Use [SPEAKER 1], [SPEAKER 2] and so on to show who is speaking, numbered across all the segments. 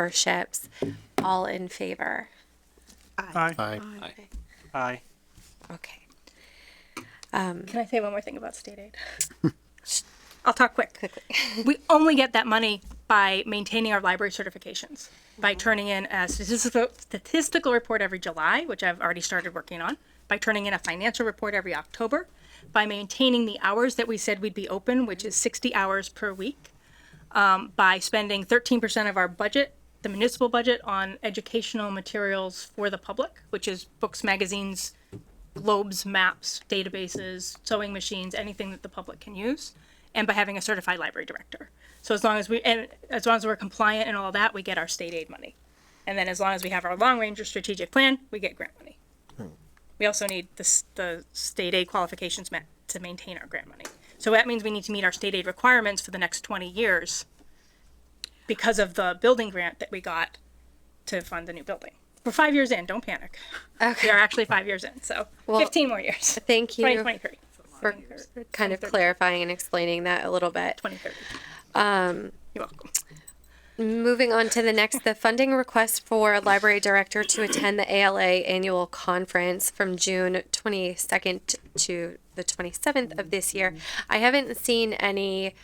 [SPEAKER 1] memberships. All in favor?
[SPEAKER 2] Aye.
[SPEAKER 3] Aye.
[SPEAKER 2] Aye.
[SPEAKER 1] Okay.
[SPEAKER 4] Can I say one more thing about state aid? I'll talk quick. we only get that money by maintaining our library certifications, by turning in a statistical, statistical report every July, which I've already started working on, by turning in a financial report every October, by maintaining the hours that we said we'd be open, which is 60 hours per week, um, by spending 13% of our budget, the municipal budget, on educational materials for the public, which is books, magazines, globes, maps, databases, sewing machines, anything that the public can use, and by having a certified library director. So as long as we and as long as we're compliant and all that, we get our state aid money. And then as long as we have our long range or strategic plan, we get grant money. We also need the, s- the state aid qualifications met to maintain our grant money. So that means we need to meet our state aid requirements for the next 20 years because of the building grant that we got to fund the new building. We're five years in, don't panic. We are actually five years in, so 15 more years.
[SPEAKER 1] Thank you
[SPEAKER 4] 2023.
[SPEAKER 1] for kind of clarifying and explaining that a little bit.
[SPEAKER 4] 2030.
[SPEAKER 1] Um,
[SPEAKER 4] You're welcome.
[SPEAKER 1] Moving on to the next, the funding request for library director to attend the ALA annual conference from June twenty-second to the twenty-seventh of this year. I haven't seen any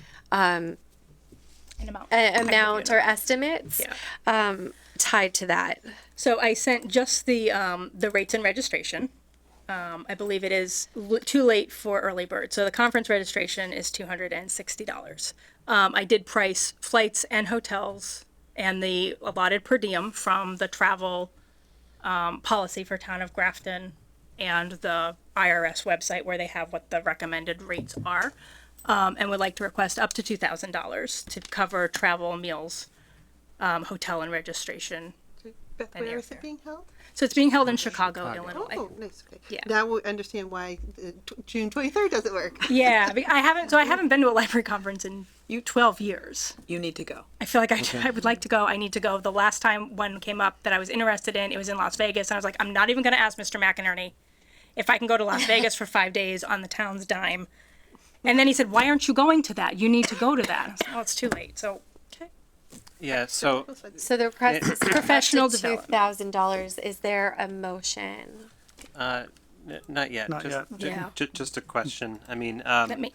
[SPEAKER 4] An amount.
[SPEAKER 1] uh, amount or estimates
[SPEAKER 4] Yeah.
[SPEAKER 1] um, tied to that.
[SPEAKER 4] So I sent just the, um, the rates and registration. Um, I believe it is l- too late for early bird. So the conference registration is two hundred and sixty dollars. Um, I did price flights and hotels and the allotted per diem from the travel, um, policy for town of Grafton and the IRS website where they have what the recommended rates are. Um, and would like to request up to two thousand dollars to cover travel, meals, um, hotel and registration
[SPEAKER 5] Beth,
[SPEAKER 4] And
[SPEAKER 5] where is
[SPEAKER 4] airfare.
[SPEAKER 5] it being held?
[SPEAKER 4] so it's being held in Chicago, Illinois.
[SPEAKER 5] Oh, nice. Okay.
[SPEAKER 4] Yeah.
[SPEAKER 5] Now we understand why the tw- June 23rd doesn't work.
[SPEAKER 4] Yeah, be- I haven't. So I haven't been to a library conference in you 12 years.
[SPEAKER 6] You need to go.
[SPEAKER 4] I feel like I, I would like to go. I need to go. The last time one came up that I was interested in, it was in Las Vegas, and I was like, I'm not even going to ask Mr. McInerney if I can go to Las Vegas for five days on the town's dime. And then he said, Why aren't you going to that? You need to go to that. I was like, oh, it's too late. So
[SPEAKER 2] Yeah, so
[SPEAKER 1] So the request is professional
[SPEAKER 4] Professional
[SPEAKER 1] two
[SPEAKER 4] development.
[SPEAKER 1] thousand dollars. Is there a motion?
[SPEAKER 3] N- Not yet.
[SPEAKER 2] Not
[SPEAKER 3] just,
[SPEAKER 2] yet.
[SPEAKER 3] ju-
[SPEAKER 4] Yeah.
[SPEAKER 3] ju- just a question. I mean, um,
[SPEAKER 4] let me.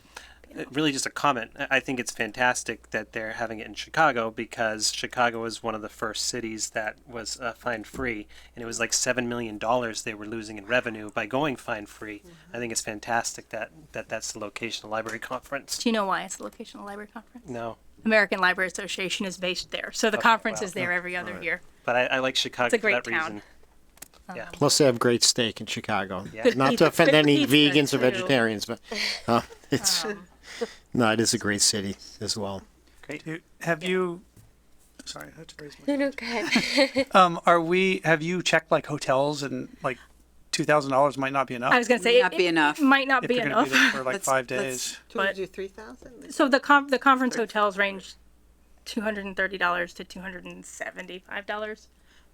[SPEAKER 3] uh, really just a comment. I I think it's fantastic that they're having it in Chicago because Chicago was one of the first cities that was uh, fine free, and it was like seven million dollars they were losing in revenue by going fine free.
[SPEAKER 4] Mm-hmm.
[SPEAKER 3] I think it's fantastic that, that that's the location of the library conference.
[SPEAKER 4] Do you know why it's the location of the library conference?
[SPEAKER 3] No,
[SPEAKER 4] American Library Association is based there. So the conference is there every other year.
[SPEAKER 3] but I, I like Chicago
[SPEAKER 4] It's a
[SPEAKER 3] for that
[SPEAKER 4] great town.
[SPEAKER 3] reason. Yeah,
[SPEAKER 7] Plus, they have great steak in Chicago.
[SPEAKER 3] Good
[SPEAKER 7] Not
[SPEAKER 4] pizza.
[SPEAKER 7] to offend
[SPEAKER 4] Good
[SPEAKER 7] any
[SPEAKER 4] pizza,
[SPEAKER 7] vegans or
[SPEAKER 4] too.
[SPEAKER 7] vegetarians, but uh, it's no, it is a great city as well.
[SPEAKER 3] great.
[SPEAKER 2] You- Have you? Sorry, I had to raise my.
[SPEAKER 1] No, no, go ahead.
[SPEAKER 2] Um, are we? Have you checked like hotels and like two thousand dollars might not be enough
[SPEAKER 4] I was going to say it,
[SPEAKER 6] not be
[SPEAKER 4] it-
[SPEAKER 6] enough.
[SPEAKER 4] it might not
[SPEAKER 2] if
[SPEAKER 4] be
[SPEAKER 2] you're going
[SPEAKER 4] enough.
[SPEAKER 2] to be there for like
[SPEAKER 6] Let's-
[SPEAKER 2] five
[SPEAKER 6] let's-
[SPEAKER 2] days.
[SPEAKER 5] Do we
[SPEAKER 4] But-
[SPEAKER 5] do 3,000?
[SPEAKER 4] So the con- the conference hotels range two hundred and thirty dollars to two hundred and seventy five dollars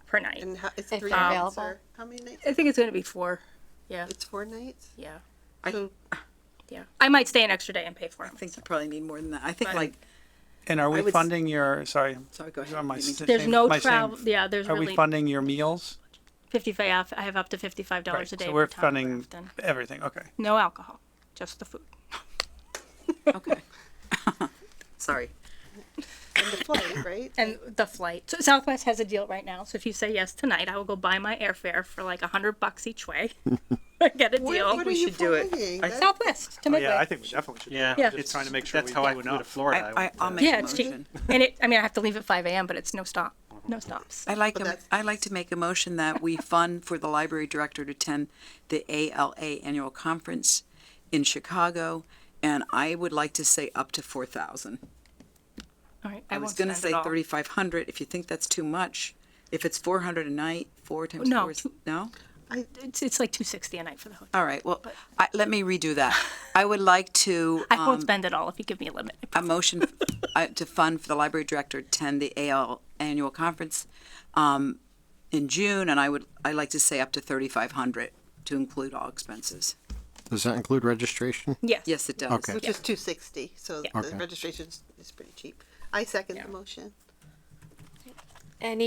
[SPEAKER 4] per night.
[SPEAKER 5] And how, it's
[SPEAKER 1] If
[SPEAKER 5] three
[SPEAKER 1] they're
[SPEAKER 5] nights
[SPEAKER 1] available.
[SPEAKER 5] or how many nights?
[SPEAKER 4] I think it's going to be four. Yeah,
[SPEAKER 5] It's four nights.
[SPEAKER 4] yeah,
[SPEAKER 5] So
[SPEAKER 4] yeah. I might stay an extra day and pay for it.
[SPEAKER 6] I think you probably need more than that. I think
[SPEAKER 4] But-
[SPEAKER 6] like
[SPEAKER 2] And are we
[SPEAKER 6] would s-
[SPEAKER 2] funding your? Sorry,
[SPEAKER 6] sorry, go ahead.
[SPEAKER 2] you're on my
[SPEAKER 6] You need to-
[SPEAKER 2] s-
[SPEAKER 4] There's
[SPEAKER 2] same-
[SPEAKER 4] no
[SPEAKER 2] my same-
[SPEAKER 4] travel. Yeah, there's
[SPEAKER 2] Are
[SPEAKER 4] really
[SPEAKER 2] we funding your meals?
[SPEAKER 4] fifty five. I have up to fifty five dollars a day.
[SPEAKER 2] so
[SPEAKER 4] for
[SPEAKER 2] we're
[SPEAKER 4] Tom
[SPEAKER 2] funding
[SPEAKER 4] Grafton.
[SPEAKER 2] everything. Okay.
[SPEAKER 4] no alcohol, just the food.
[SPEAKER 6] okay. sorry.
[SPEAKER 5] and the flight, right?
[SPEAKER 4] and the flight. So Southwest has a deal right now. So if you say yes tonight, I will go buy my airfare for like a hundred bucks each way. Get a
[SPEAKER 5] Where-
[SPEAKER 4] deal.
[SPEAKER 5] what
[SPEAKER 6] we
[SPEAKER 5] are you
[SPEAKER 6] should do it.
[SPEAKER 5] flying?
[SPEAKER 6] I-
[SPEAKER 5] That-
[SPEAKER 4] Southwest to Midway.
[SPEAKER 2] Oh, Yeah, I think we definitely should.
[SPEAKER 3] Yeah,
[SPEAKER 4] Yeah.
[SPEAKER 2] Just trying to make sure
[SPEAKER 3] that's
[SPEAKER 2] we
[SPEAKER 3] how I
[SPEAKER 2] went
[SPEAKER 3] flew to
[SPEAKER 2] up.
[SPEAKER 3] Florida.
[SPEAKER 6] I, I, I'll make
[SPEAKER 4] Yeah,
[SPEAKER 6] a
[SPEAKER 4] it's cheap.
[SPEAKER 6] motion.
[SPEAKER 4] And it, I mean, I have to leave at 5 a.m., but it's no stop, no stops.
[SPEAKER 6] I like a,
[SPEAKER 5] that's-
[SPEAKER 6] I like to make a motion that we fund for the library director to attend the ALA annual conference in Chicago, and I would like to say up to four thousand.
[SPEAKER 4] All right,
[SPEAKER 6] I was going to say thirty-five hundred. If you think that's too much, if it's four hundred a night, four times
[SPEAKER 4] No,
[SPEAKER 6] four is
[SPEAKER 4] two-
[SPEAKER 6] no.
[SPEAKER 4] It's, it's like 260 a night for the hotel.
[SPEAKER 6] All right. Well, I, let me redo that. I would like to.
[SPEAKER 4] I won't
[SPEAKER 6] um,
[SPEAKER 4] spend it all if you give me a limit.
[SPEAKER 6] a motion uh, to fund for the library director to attend the AL annual conference um, in June, and I would, I'd like to say up to 3,500 to include all expenses.
[SPEAKER 7] Does that include registration?
[SPEAKER 4] Yes.
[SPEAKER 6] Yes, it does.
[SPEAKER 7] Okay.
[SPEAKER 5] Which is 260. So the
[SPEAKER 7] Okay.
[SPEAKER 5] registration is pretty cheap. I second
[SPEAKER 4] Yeah.
[SPEAKER 5] the motion.
[SPEAKER 1] Any